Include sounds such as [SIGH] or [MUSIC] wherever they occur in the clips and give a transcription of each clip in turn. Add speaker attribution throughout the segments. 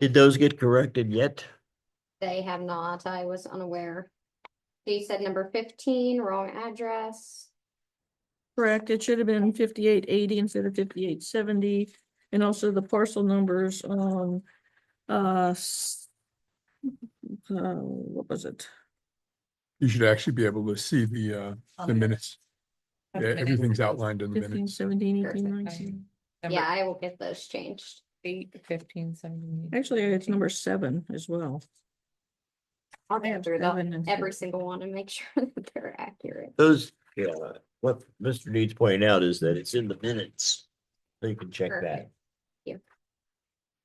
Speaker 1: Did those get corrected yet?
Speaker 2: They have not, I was unaware. She said number fifteen, wrong address.
Speaker 3: Correct, it should have been fifty-eight eighty instead of fifty-eight seventy, and also the parcel numbers on, uh, s- uh, what was it?
Speaker 4: You should actually be able to see the, uh, the minutes. Yeah, everything's outlined in the
Speaker 3: Fifteen,
Speaker 4: minutes.
Speaker 3: seventeen,
Speaker 2: Perfect,
Speaker 3: eighteen,
Speaker 2: I
Speaker 3: nineteen.
Speaker 2: Yeah, I will get those changed.
Speaker 5: Eight, fifteen, seventeen.
Speaker 3: Actually, it's number seven as well.
Speaker 2: I'll
Speaker 3: I
Speaker 2: go
Speaker 3: have
Speaker 2: through the,
Speaker 3: seven and
Speaker 2: every
Speaker 3: six.
Speaker 2: single one and make [LAUGHS] sure that they're accurate.
Speaker 1: Those, yeah, what Mr. Needs pointing out is that it's in the minutes. So you can check that.
Speaker 2: Perfect.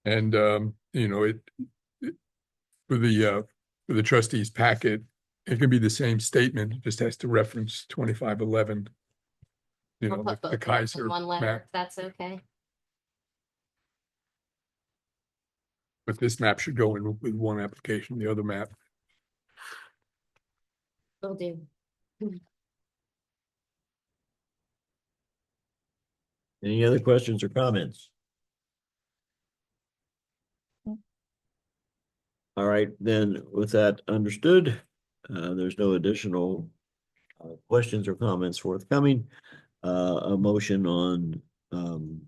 Speaker 4: And, um, you know, it, it- for the, uh, for the trustees packet, it can be the same statement, it just has to reference twenty-five eleven. You
Speaker 2: I'll
Speaker 4: know,
Speaker 2: put
Speaker 4: the-
Speaker 2: both of
Speaker 4: the
Speaker 2: them in
Speaker 4: Kaiser
Speaker 2: One letter,
Speaker 4: map,
Speaker 2: if that's okay.
Speaker 4: but this map should go in with one application, the other map.
Speaker 2: Will do.
Speaker 1: Any other questions or comments? All right, then with that understood, uh, there's no additional uh, questions or comments forthcoming. Uh, a motion on, um,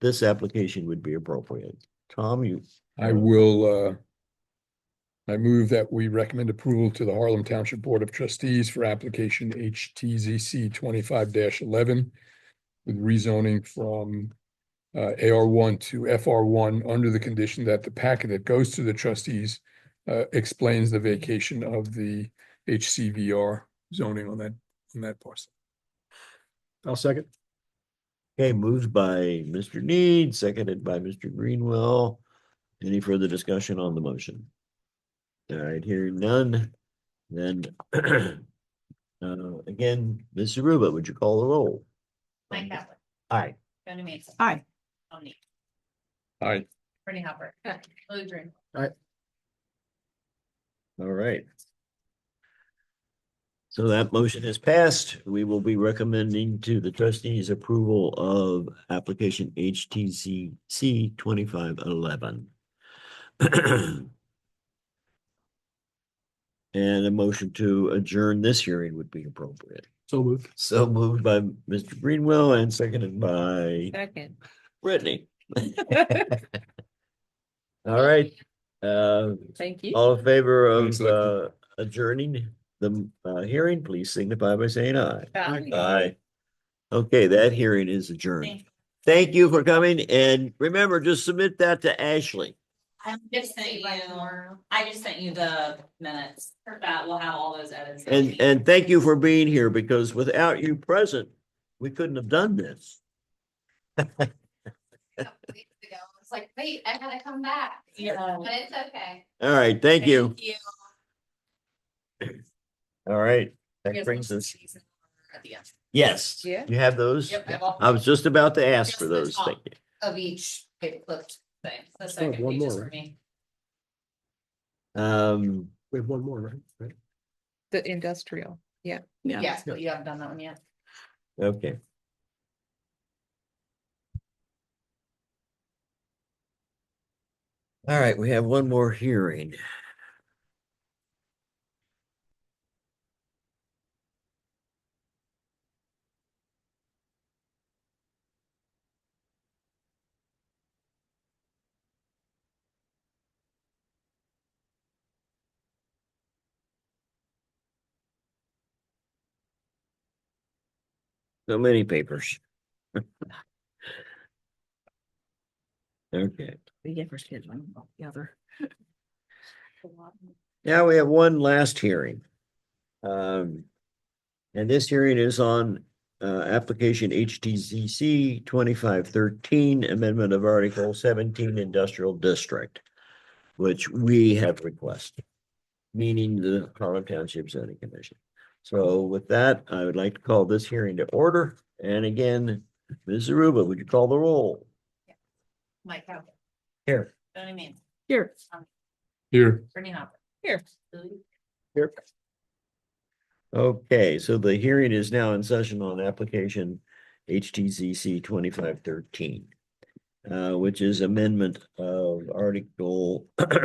Speaker 1: this application would be appropriate. Tom, you,
Speaker 4: I will, uh, I move that we recommend approval to the Harlem Township Board of Trustees for application HTZC twenty-five eleven with rezoning from uh, AR one to FR one under the condition that the packet that goes to the trustees uh, explains the vacation of the HCVR zoning on that, on that parcel. I'll second.
Speaker 1: okay, moved by Mr. Need, seconded by Mr. Greenwell. Any further discussion on the motion? All right, hearing none, then [CLEARS THROAT] uh, again, Ms. Aruba, would you call the roll?
Speaker 6: Mike Kavler,
Speaker 1: Aye.
Speaker 6: Jody Manson.
Speaker 3: Aye.
Speaker 6: Tony,
Speaker 4: Aye.
Speaker 6: Brittany Hopper, Lily Green,
Speaker 1: All right. So that motion is passed. We will be recommending to the trustees approval of application HTCC twenty-five eleven. [CLEARS THROAT] And a motion to adjourn this hearing would be appropriate.
Speaker 4: So moved.
Speaker 1: So moved by Mr. Greenwell and seconded by
Speaker 5: [LAUGHS]
Speaker 6: [LAUGHS]
Speaker 5: Second.
Speaker 1: Brittany. All right, uh,
Speaker 5: Thank you.
Speaker 1: all in favor
Speaker 4: Thanks,
Speaker 1: of
Speaker 4: Lexi.
Speaker 1: uh adjourning the uh hearing, please signify by saying aye.
Speaker 6: Bye.
Speaker 1: Aye. Okay, that hearing is adjourned.
Speaker 6: Thank
Speaker 1: Thank you for coming and remember, just submit that to Ashley.
Speaker 6: I just um, sent you, I just sent you the minutes that will have all those edits.
Speaker 1: And and thank you for being here because without you present, we couldn't have done this.
Speaker 2: It's like, wait, I gotta come back,
Speaker 6: Yeah.
Speaker 2: but it's okay.
Speaker 1: All right, thank you.
Speaker 6: You.
Speaker 1: All right,
Speaker 6: You
Speaker 1: that
Speaker 6: guys
Speaker 1: brings
Speaker 6: want
Speaker 1: us,
Speaker 6: these in order At the end.
Speaker 1: yes,
Speaker 5: Yeah.
Speaker 1: you have those?
Speaker 6: Yep, I will.
Speaker 1: I was just about to ask
Speaker 6: Just
Speaker 1: for
Speaker 6: the
Speaker 1: those.
Speaker 6: top.
Speaker 1: Thank you.
Speaker 6: Of each paperclip thing, the
Speaker 4: have
Speaker 6: second
Speaker 4: one
Speaker 6: page is
Speaker 4: more,
Speaker 6: for
Speaker 4: right?
Speaker 6: me.
Speaker 1: Um,
Speaker 4: We have one more, right? Right?
Speaker 5: The industrial.
Speaker 3: Yeah.
Speaker 6: Yes, but you haven't done that one yet.
Speaker 1: Okay. All right, we have one more hearing. So many papers. [LAUGHS] Okay,
Speaker 3: We get first kids one, the other.
Speaker 1: now we have one last hearing. Um, and this hearing is on, uh, application HTCC twenty-five thirteen, amendment of Article seventeen Industrial District, which we have requested, meaning the Harlem Township zoning commission. So with that, I would like to call this hearing to order. And again, Ms. Aruba, would you call the roll?
Speaker 6: Mike Kavler,
Speaker 1: Here.
Speaker 6: Jody Manson,
Speaker 3: Here.
Speaker 4: Here.
Speaker 6: Brittany Hopper.
Speaker 5: Here.
Speaker 6: Lily
Speaker 1: Okay, so the hearing is now in session on application HTCC twenty-five thirteen. uh, which is amendment of article